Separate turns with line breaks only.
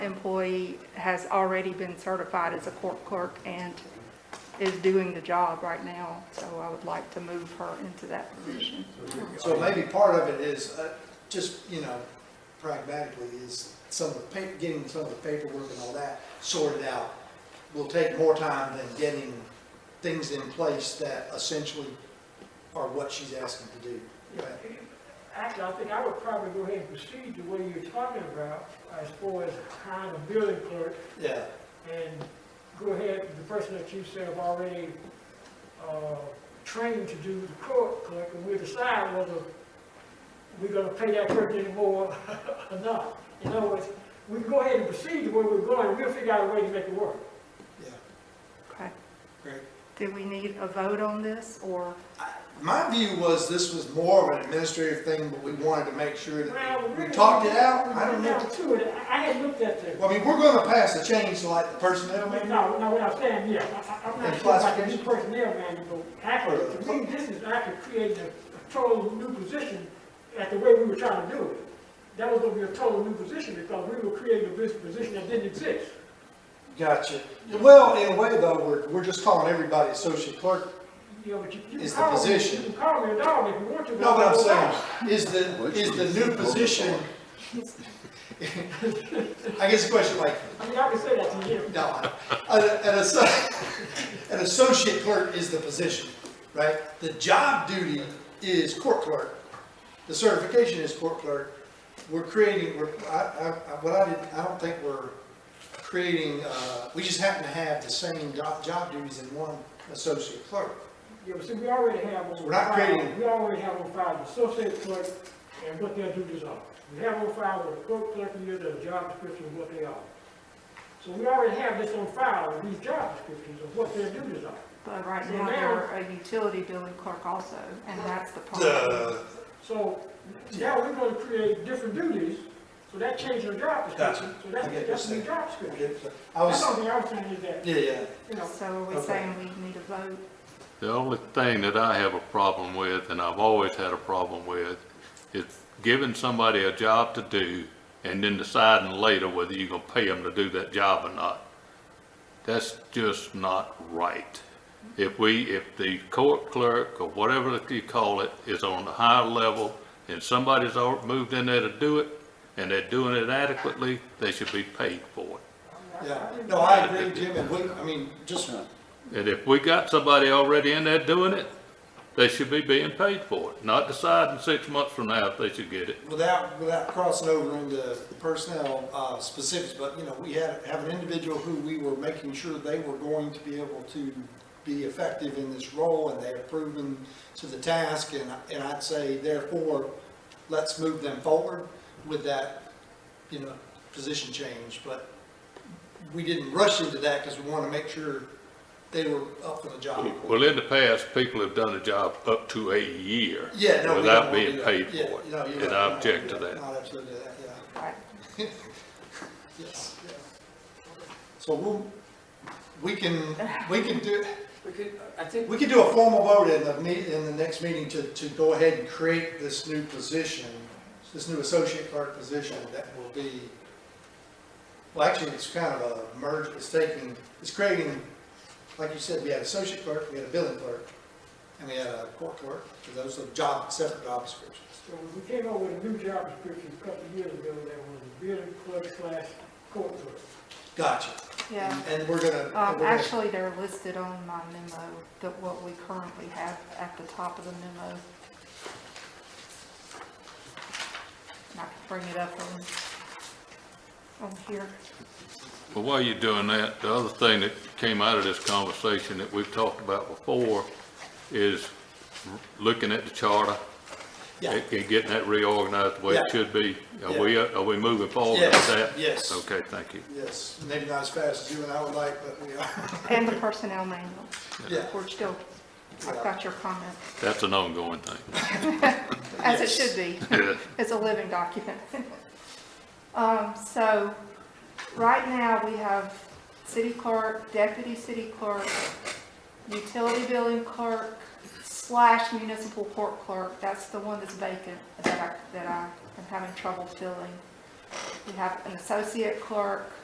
employee has already been certified as a court clerk and is doing the job right now, so I would like to move her into that position.
So maybe part of it is, uh, just, you know, pragmatically, is some of the pa, getting some of the paperwork and all that sorted out will take more time than getting things in place that essentially are what she's asking to do. Right?
Actually, I think I would probably go ahead and proceed the way you're talking about as far as hiring a building clerk
Yeah,
and go ahead, the person that you said have already, uh, trained to do the court clerk, and we'll decide whether we're gonna pay that person anymore or not. In other words, we can go ahead and proceed the way we're going, we'll figure out a way to make it work.
yeah,
Okay.
great.
Do we need a vote on this, or,
My view was this was more of an administrative thing, but we wanted to make sure
Well,
that we
really,
talked it out. I don't
We
know.
went down to it, I I had looked at the,
Well, I mean, we're gonna pass a change to like the personnel
I mean,
manual.
no, no, what I'm saying, yeah, I- I- I'm
Yeah,
not sure about the new
classification.
personnel manual, but actually, to me, this is actually creating a a total new position at the way we were trying to do it. That was gonna be a total new position because we were creating a bus- position that didn't exist.
Gotcha. Well, in a way though, we're, we're just calling everybody associate clerk
You know, but you, you can
It's the
call me,
position.
you can call me a dog if you want to. but
No, but
I'm
I'm
a
saying,
dog.
is the, is the new position? I guess the question, like,
I mean, I can say that to you.
no, I- an, an asso- an associate clerk is the position, right? The job duty is court clerk. The certification is court clerk. We're creating, we're, I, I, what I didn't, I don't think we're creating, uh, we just happen to have the same job, job duties in one associate clerk.
Yeah, but see, we already have on
We're not
file,
creating-
we already have on file the associate clerk and what their duties are. We have on file with the clerk, clerk, and the job description, and what they are. So we already have this on file, these job descriptions of what their duties are.
but right now they're a utility billing clerk also, and that's the problem.
Duh.
So now we're gonna create different duties, so that changes the job description, so that's,
I get
that's
what
the
you're
new job description.
I
That's
was,
something I was saying is that,
yeah, yeah.
you know,
So are we
Okay.
saying we need a vote?
The only thing that I have a problem with, and I've always had a problem with, is giving somebody a job to do and then deciding later whether you're gonna pay them to do that job or not. That's just not right. If we, if the court clerk or whatever that you call it is on the higher level and somebody's al- moved in there to do it and they're doing it adequately, they should be paid for it.
Yeah, no, I agree, Jim, and we, I mean, just,
And if we got somebody already in there doing it, they should be being paid for it, not deciding six months from now if they should get it.
without, without crossing over into personnel uh, specifics, but, you know, we had, have an individual who we were making sure they were going to be able to be effective in this role, and they have proven to the task, and, I- and I'd say therefore, let's move them forward with that, you know, position change, but we didn't rush into that because we want to make sure they were up for the job.
Well, in the past, people have done a job up to a year.
Yeah, no, we don't
Without
wanna do
being
that.
paid
Yeah,
for
no,
it,
you're
and
right.
I object to that.
No, absolutely, that, yeah,
Right.
yes, yeah. So we'll, we can, we can do,
We could, I think,
we can do a formal vote in the meet, in the next meeting to, to go ahead and create this new position, this new associate clerk position that will be, well, actually, it's kind of a merge, it's taking, it's creating, like you said, we had associate clerk, we had a billing clerk, and we had a court clerk, because those are job, separate job descriptions.
So we came up with a new job description a couple of years ago that was building clerk slash court clerk.
Gotcha.
Yeah.
And we're gonna, and
Um,
we're gonna-
Actually, they're listed on my memo, that what we currently have at the top of the memo. And I can bring it up on, on here.
But while you're doing that, the other thing that came out of this conversation that we've talked about before is looking at the charter
yeah,
and and getting that reorganized the way it
Yeah.
should be. Are we, are we moving forward
Yes,
with that?
yes.
Okay, thank you.
yes, maybe not as fast as you and I would like, but we are,
And the personnel manual.
yeah,
We're still, I've got your comment,
That's an ongoing thing.
as it should be. It's a living document. Um, so, right now, we have city clerk, deputy city clerk, utility billing clerk slash municipal court clerk. That's the one that's vacant that I, that I am having trouble filling. We have an associate clerk,